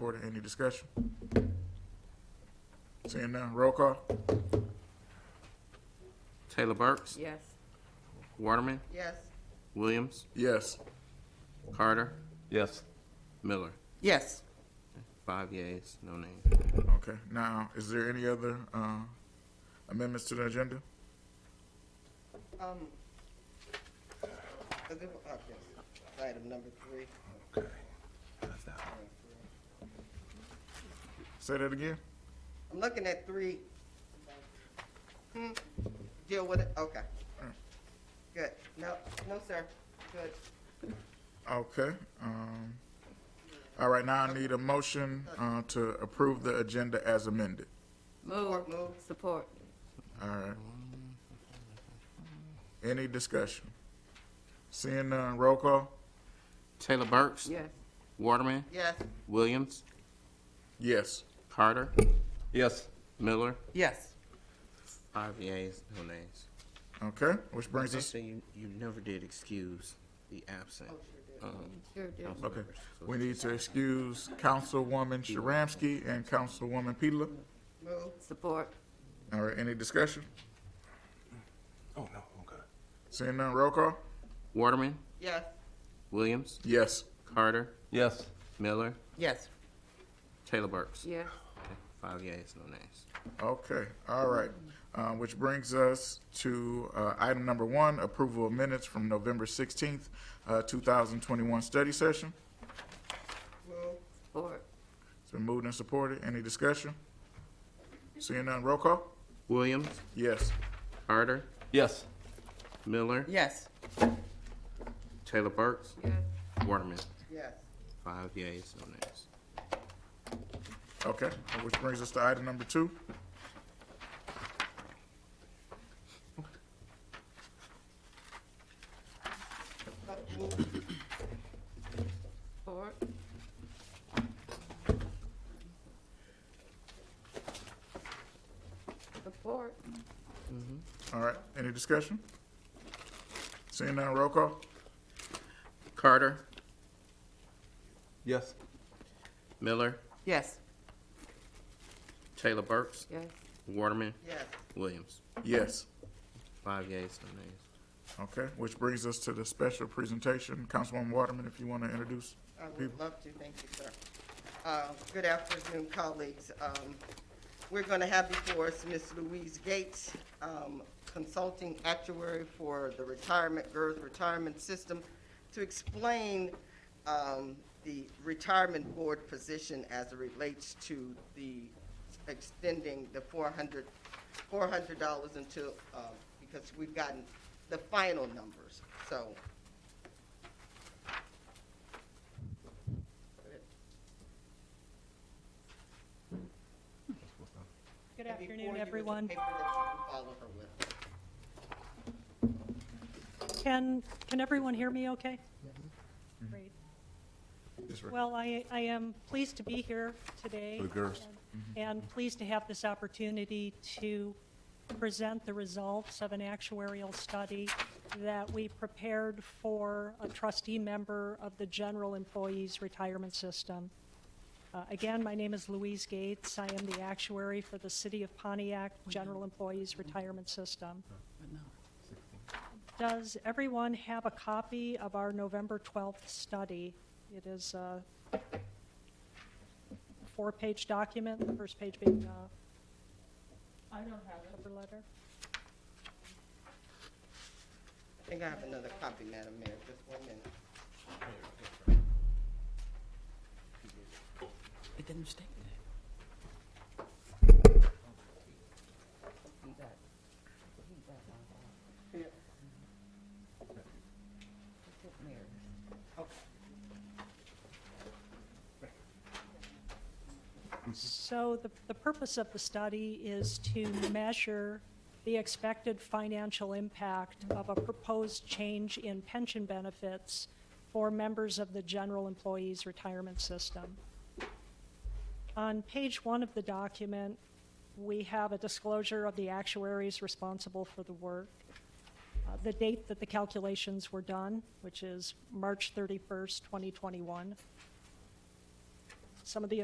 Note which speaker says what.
Speaker 1: Porter, any discussion? Seeing none, roll call?
Speaker 2: Taylor Burks,
Speaker 3: Yes.
Speaker 2: Waterman,
Speaker 3: Yes.
Speaker 2: Williams,
Speaker 1: Yes.
Speaker 2: Carter,
Speaker 4: Yes.
Speaker 2: Miller.
Speaker 3: Yes.
Speaker 2: Five yeas, no nays.
Speaker 1: Okay, now, is there any other, uh, amendments to the agenda?
Speaker 5: Um, a good, uh, yes, item number three.
Speaker 4: Okay. That's that.
Speaker 1: Say that again?
Speaker 5: I'm looking at three. Hmm, deal with it, okay. Good, no, no, sir, good.
Speaker 1: Okay, um, all right, now I need a motion, uh, to approve the agenda as amended.
Speaker 3: Move.
Speaker 5: Move.
Speaker 3: Support.
Speaker 1: All right. Any discussion? Seeing none, roll call?
Speaker 2: Taylor Burks,
Speaker 3: Yes.
Speaker 2: Waterman,
Speaker 5: Yes,
Speaker 2: Williams,
Speaker 1: Yes.
Speaker 2: Carter,
Speaker 4: Yes.
Speaker 2: Miller.
Speaker 3: Yes.
Speaker 2: Five yeas, no nays.
Speaker 1: Okay, which brings us,
Speaker 2: So you, you never did excuse the absent. um,
Speaker 3: Sure do.
Speaker 2: council
Speaker 1: okay,
Speaker 2: members. So
Speaker 1: we need to excuse Councilwoman Sharamsky and Councilwoman Pedala.
Speaker 5: move,
Speaker 3: Support.
Speaker 1: All right, any discussion?
Speaker 4: Oh, no, okay.
Speaker 1: Seeing none, roll call?
Speaker 2: Waterman,
Speaker 5: yes,
Speaker 2: Williams,
Speaker 1: Yes.
Speaker 2: Carter,
Speaker 4: Yes.
Speaker 2: Miller,
Speaker 3: Yes.
Speaker 2: Taylor Burks.
Speaker 3: Yes.
Speaker 2: Okay, Five yeas, no nays.
Speaker 1: Okay, all right. Uh, which brings us to, uh, item number one, approval of minutes from November sixteenth, uh, two thousand twenty-one study session.
Speaker 5: move,
Speaker 3: Support.
Speaker 1: It's been moved and supported. Any discussion? Seeing none, roll call?
Speaker 2: Williams,
Speaker 1: Yes.
Speaker 2: Carter,
Speaker 4: Yes.
Speaker 2: Miller,
Speaker 3: Yes.
Speaker 2: Taylor Burks,
Speaker 3: Yes.
Speaker 2: Waterman.
Speaker 5: yes,
Speaker 2: Five yeas, no nays.
Speaker 1: Okay, which brings us to item number two.
Speaker 3: Support. Support.
Speaker 1: All right, any discussion? Seeing none, roll call?
Speaker 2: Carter,
Speaker 4: Yes.
Speaker 2: Miller,
Speaker 3: Yes.
Speaker 2: Taylor Burks,
Speaker 3: Yes.
Speaker 2: Waterman,
Speaker 5: yes,
Speaker 2: Williams.
Speaker 1: Yes.
Speaker 2: Five yeas, no nays.
Speaker 1: Okay, which brings us to the special presentation. Councilwoman Waterman, if you want to introduce.
Speaker 5: I
Speaker 1: People.
Speaker 5: would love to, thank you, sir. Uh, Good afternoon, colleagues. Um, We're going to have before us Ms. Louise Gates, um, Consulting Actuary for the Retirement, GERS Retirement System, to explain um, the retirement board position as it relates to the extending the 400 $400 until, uh, because we've gotten the final numbers, so.
Speaker 6: Good
Speaker 5: Before you
Speaker 6: afternoon,
Speaker 5: was a
Speaker 6: everyone.
Speaker 5: paper that you can follow her with.
Speaker 6: Can, can everyone hear me okay?
Speaker 4: Mm-hmm.
Speaker 6: Great.
Speaker 1: Yes, ma'am.
Speaker 6: Well, I, I am pleased to be here today.
Speaker 4: For the girls.
Speaker 6: And pleased to have this opportunity to present the results of an actuarial study that we prepared for a trustee member of the General Employees Retirement System. Uh, Again, my name is Louise Gates. I am the actuary for the City of Pontiac
Speaker 4: Mm-hmm.
Speaker 6: General Employees Retirement System. Does everyone have a copy of our November 12th study? It is a four-page document, the first page being uh I don't have it. Cover letter.
Speaker 5: I think I have another copy, Madam Mayor, just one minute.
Speaker 7: It didn't state that.
Speaker 6: So the, the purpose of the study is to measure the expected financial impact of a proposed change in pension benefits for members of the general employees retirement system. On page one of the document, we have a disclosure of the actuaries responsible for the work, uh, the date that the calculations were done, which is March 31st, 2021. Some of the